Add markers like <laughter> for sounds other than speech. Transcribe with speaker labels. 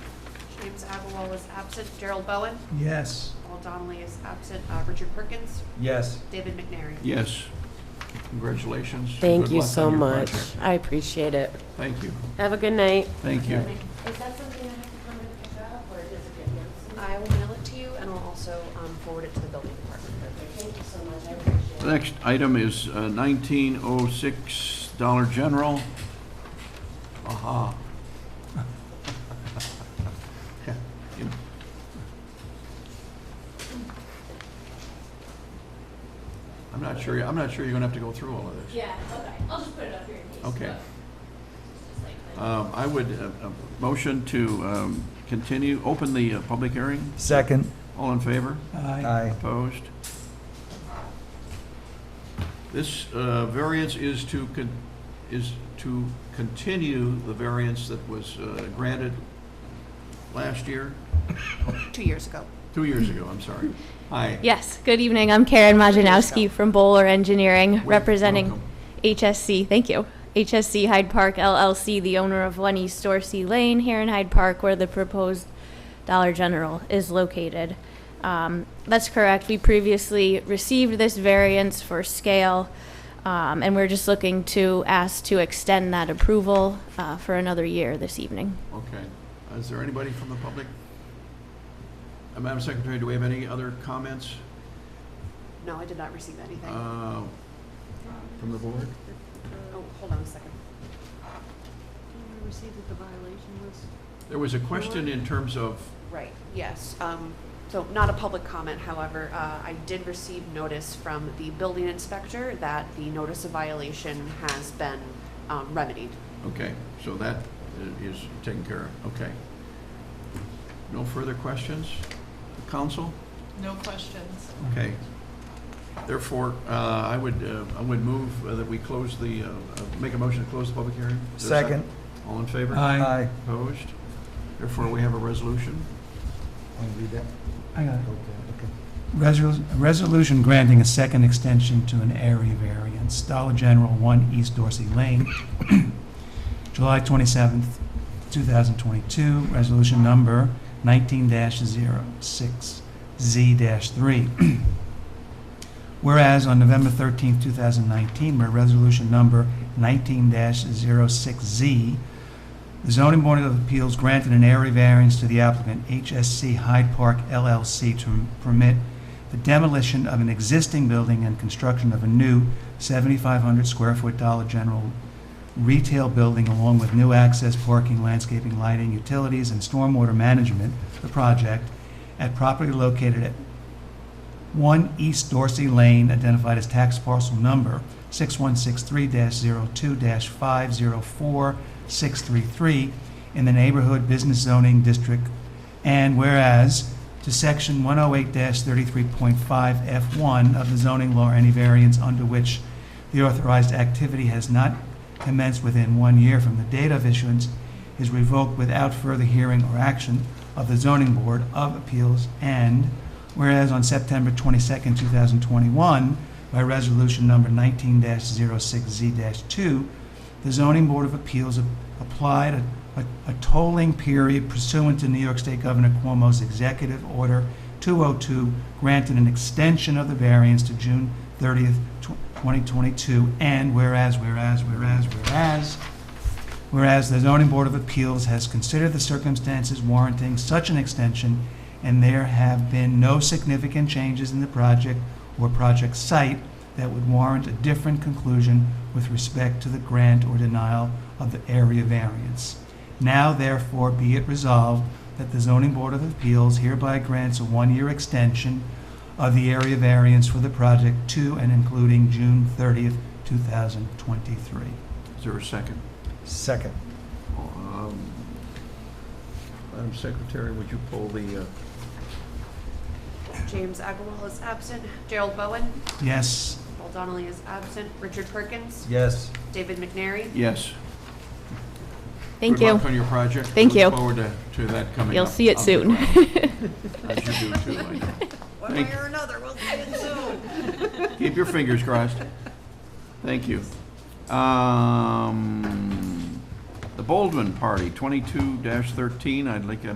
Speaker 1: James Agarwal is absent. Gerald Bowen.
Speaker 2: Yes.
Speaker 1: Paul Donnelly is absent. Uh, Richard Perkins.
Speaker 2: Yes.
Speaker 1: David McNary.
Speaker 3: Yes. Congratulations.
Speaker 4: Thank
Speaker 3: Good
Speaker 4: you
Speaker 3: luck
Speaker 4: so
Speaker 3: on your
Speaker 4: much.
Speaker 3: project.
Speaker 4: I appreciate it.
Speaker 3: Thank you,
Speaker 4: Have a good night.
Speaker 3: thank you.
Speaker 5: Is that something I have to come and pick up, or does it get noticed?
Speaker 1: I will mail it to you and I'll also um, forward it to the building department.
Speaker 5: Thank you so much, I appreciate it.
Speaker 3: The next item is uh, 1906 Dollar General. Aha. <laughs> You- I'm not sure, I'm not sure you're going to have to go through all of this.
Speaker 5: Yeah, okay, I'll just put it up here in case.
Speaker 3: Okay.
Speaker 5: but it's just like-
Speaker 3: Um, I would, uh, uh, motion to um, continue, open the uh, public hearing.
Speaker 2: Second.
Speaker 3: All in favor?
Speaker 2: Aye.
Speaker 3: Opposed? This uh, variance is to, con- is to continue the variance that was uh, granted last year,
Speaker 1: Two years ago.
Speaker 3: two years ago, I'm sorry. Hi.
Speaker 6: Yes, good evening. I'm Karen Majanowski from Bowler Engineering,
Speaker 3: Wel-
Speaker 6: representing
Speaker 3: welcome.
Speaker 6: HSC, thank you. HSC Hyde Park LLC, the owner of One East Dorsey Lane here in Hyde Park, where the proposed Dollar General is located. Um, That's correct. We previously received this variance for scale, um, and we're just looking to ask to extend that approval uh, for another year this evening.
Speaker 3: Okay. Is there anybody from the public? Uh, Madam Secretary, do we have any other comments
Speaker 1: No, I did not receive anything. Oh,
Speaker 3: uh, from the board?
Speaker 1: hold on a second. Did we receive that the violation was?
Speaker 3: There was a question in terms of,
Speaker 1: Right, yes. Um, So not a public comment, however, uh, I did receive notice from the building inspector that the notice of violation has been um, remedied.
Speaker 3: okay, so that i- is taken care of, okay. No further questions? Council?
Speaker 7: No questions.
Speaker 3: Okay. Therefore, uh, I would, uh, I would move uh, that we close the, uh, uh, make a motion to close the public hearing. Is there a
Speaker 2: Second.
Speaker 3: All in favor?
Speaker 2: Aye.
Speaker 3: Opposed? Therefore, we have a resolution.
Speaker 8: Want to read that?
Speaker 2: I got it.
Speaker 8: Okay, okay.
Speaker 2: Resol- Resolution granting a second extension to an area variance, Dollar General, 1 East Dorsey Lane, <clears throat> July 27th, 2022, resolution number 19-06Z-3. <clears throat> Whereas on November 13th, 2019, by resolution number 19-06Z, the zoning board of appeals granted an area variance to the applicant, HSC Hyde Park LLC, to permit the demolition of an existing building and construction of a new 7,500 square foot Dollar General retail building along with new access, parking, landscaping, lighting, utilities, and stormwater management, the project, at property located at 1 East Dorsey Lane, identified as tax parcel number 6163-02-504633 in the neighborhood business zoning district, and whereas to section 108-33.5 F1 of the zoning law, any variance under which the authorized activity has not commenced within one year from the date of issuance is revoked without further hearing or action of the zoning board of appeals, and whereas on September 22nd, 2021, by resolution number 19-06Z-2, the zoning board of appeals ap- applied a- a a tolling period pursuant to New York State Governor Cuomo's Executive Order 202, granted an extension of the variance to June 30th, tw- 2022, and whereas, whereas, whereas, whereas, Whereas the zoning board of appeals has considered the circumstances warranting such an extension, and there have been no significant changes in the project or project site that would warrant a different conclusion with respect to the grant or denial of the area variance. Now therefore be it resolved that the zoning board of appeals hereby grants a one-year extension of the area variance for the project to and including June 30th, 2023.
Speaker 3: Is there a second?
Speaker 8: Second.
Speaker 3: Um, Madam Secretary, would you pull the, uh,
Speaker 1: James Agarwal is absent. Gerald Bowen.
Speaker 2: Yes?
Speaker 1: Paul Donnelly is absent. Richard Perkins.
Speaker 8: Yes.
Speaker 1: David McNary.
Speaker 3: yes?
Speaker 6: Thank
Speaker 3: Good
Speaker 6: you.
Speaker 3: luck on your project.
Speaker 6: Thank you.
Speaker 3: Look forward to, to that coming
Speaker 6: You'll
Speaker 3: up.
Speaker 6: see it
Speaker 3: I'll be
Speaker 6: soon.
Speaker 3: glad.
Speaker 6: <laughs>
Speaker 3: As you do too, I know.
Speaker 1: One
Speaker 3: Thank-
Speaker 1: way or another, we'll see it soon.
Speaker 3: <laughs> Keep your fingers crossed. Thank you. Um, The Baldwin Party, 22-13, I'd like a